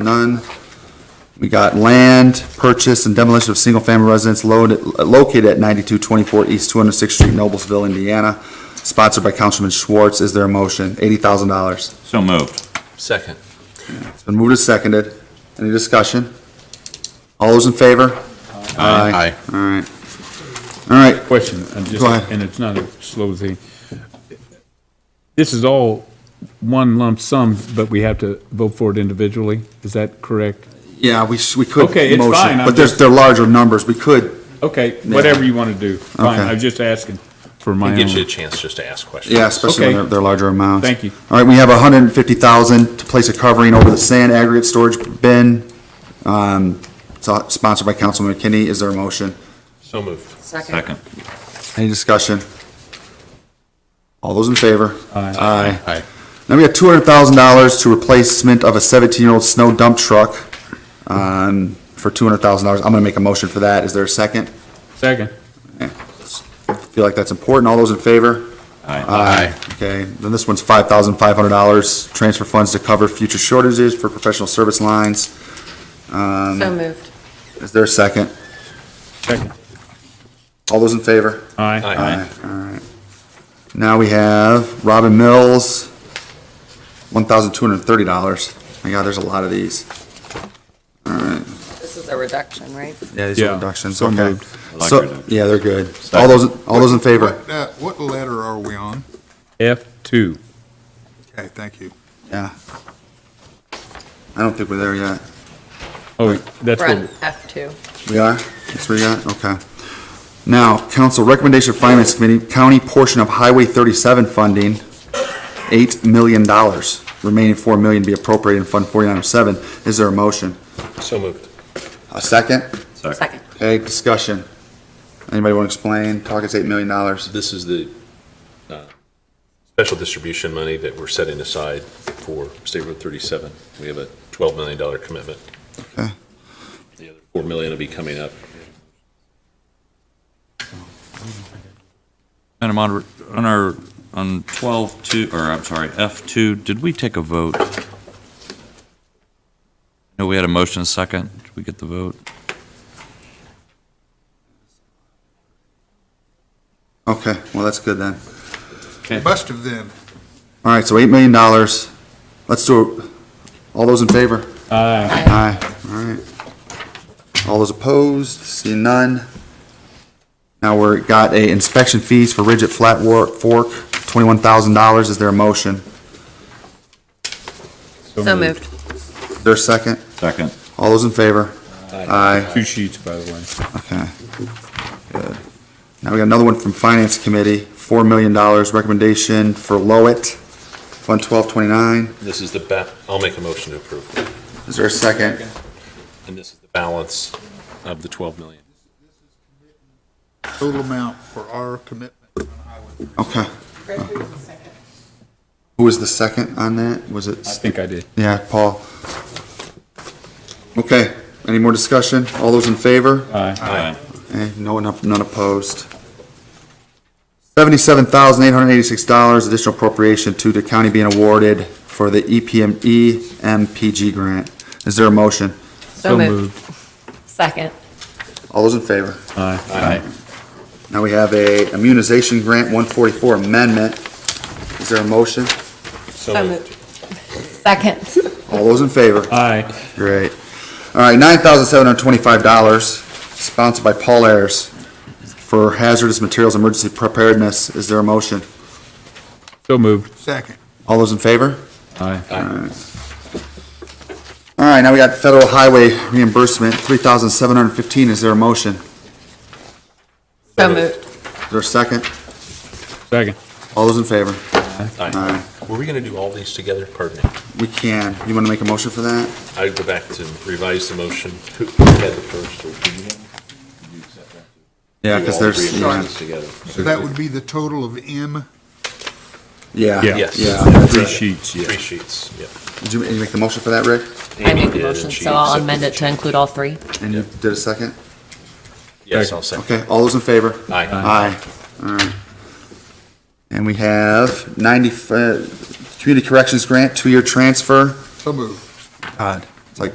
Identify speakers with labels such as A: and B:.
A: none. We got land purchase and demolition of single-family residence loaded- located at 9224 East 206th Street, Noblesville, Indiana, sponsored by Councilman Schwartz. Is there a motion? $80,000.
B: So moved.
C: Second.
A: It's been moved and seconded. Any discussion? All those in favor?
C: Aye.
A: All right. All right,
D: Question, I'm just,
A: Go ahead.
D: and it's not a slow thing. This is all one lump sum, but we have to vote for it individually? Is that correct?
A: yeah, we, sh- we could.
D: Okay, it's
A: motion,
D: fine, I'm
A: But there's,
D: just-
A: they're larger numbers. We could,
D: Okay, whatever you want to do. Fine,
A: Okay.
D: I was just asking for my
C: It gives you a
D: own.
C: chance just to ask questions.
A: Yeah, especially when
D: Okay.
A: they're, they're larger amounts.
D: Thank you.
A: All right, we have a hundred and fifty thousand to place a covering over the sand aggregate storage bin, um, so- sponsored by Councilman McKinney. Is there a motion?
C: So moved.
B: Second.
A: Any discussion? All those in favor?
D: Aye.
C: Aye.
A: Now we have two hundred thousand dollars to replacement of a seventeen-year-old snow dump truck, um, for two hundred thousand dollars. I'm gonna make a motion for that. Is there a second?
D: Second.
A: Feel like that's important. All those in favor?
C: Aye.
A: Okay, then this one's five thousand five hundred dollars, transfer funds to cover future shortages for professional service lines.
E: So moved.
A: Is there a second?
D: Second.
A: All those in favor?
D: Aye.
C: Aye.
A: All right. Now we have Robin Mills, one thousand two hundred and thirty dollars. My God, there's a lot of these.
E: This is a reduction, right?
A: Yeah, these are
D: Yeah,
A: reductions,
D: so
A: okay.
D: moved.
B: I like
A: So,
B: reductions.
A: yeah, they're good. All those, all those in favor?
F: What, uh, What letter are we on?
D: F two.
F: Okay, thank you.
A: Yeah. I don't think we're there yet.
D: Oh, that's
E: Front
D: what,
E: F2.
A: We are? That's where you at? Okay. Now, council recommendation of finance committee, county portion of highway thirty-seven funding, eight million dollars. Remaining four million be appropriated in Fund forty-nine oh seven. Is there a motion?
C: So moved.
A: A second?
B: Second.
E: Second.
A: Okay, discussion. Anybody want to explain? Talk is eight million dollars.
C: This is the uh, special distribution money that we're setting aside for State Road 37. We have a $12 million commitment.
A: Okay.
C: The other 4 million will be coming up.
B: Madam Moderator, on our, on 12, 2, or I'm sorry, F2, did we take a vote? No, we had a motion second. Did we get the vote?
A: Okay, well, that's good then.
F: Must have then.
A: All right, so eight million dollars. Let's do, it. all those in favor?
D: aye.
A: Aye, all right. All those opposed, seeing none. Now we're, got a inspection fees for Ridge at Flat Wor- Fork, twenty-one thousand dollars. Is there a motion?
E: So moved.
A: Is there a second?
B: Second.
A: All those in favor? Aye,
D: Two sheets, by the way.
A: okay. Good. Now we got another one from Finance Committee, four million dollars recommendation for Lowit, Fund twelve twenty-nine.
C: This is the, ba- I'll make a motion to approve.
A: Is there a second?
C: And this is the balance of the 12 million.
F: Total amount for our commitment on highway.
A: Okay. Who was the second on that? Was it?
D: I think I did.
A: Yeah, Paul. Okay, any more discussion? All those in favor?
D: Aye.
B: Aye.
A: Eh, No one, up- none opposed. Seventy-seven thousand eight hundred eighty-six dollars additional appropriation to the county being awarded for the E EPM, EMPG grant. Is there a motion?
E: So moved. Second.
A: All those in favor?
D: Aye.
A: Now we have a immunization grant one forty-four amendment. Is there a motion?
E: So moved. Second.
A: All those in favor?
D: Aye.
A: Great. All right, nine thousand seven hundred twenty-five dollars, sponsored by Paul Ayers for hazardous materials emergency preparedness. Is there a motion?
D: So moved.
F: Second.
A: All those in favor?
D: Aye.
A: All right, now we got federal highway reimbursement, three thousand seven hundred fifteen. Is there a motion?
E: So moved.
A: Is there a second?
D: Second.
A: All those in favor?
C: Aye. Were we going to do all these together? Pardon me.
A: We can. You want to make a motion for that?
C: I go back to revise the motion. Who who had the first? or did you have-
A: Yeah, because
C: Do all three
A: there's,
C: of
A: yeah,
C: these together.
F: So that would be the total of M.
A: yeah.
D: Yeah.
C: Yes.
A: Yeah.
D: Three sheets, yeah.
C: Three sheets, yeah.
A: Did you, did you make the motion for that, Rick?
E: I
C: Amy
E: made the
C: did, and
E: motion,
C: she
E: so I'll
C: accepted
E: amend
C: the
E: it to include all three.
A: And you did a second?
C: Yes, I'll second.
A: Okay, all those in favor?
C: Aye.
A: Aye. All right. And we have ninety, uh, Community Corrections Grant, two-year transfer.
F: So moved.
A: Todd.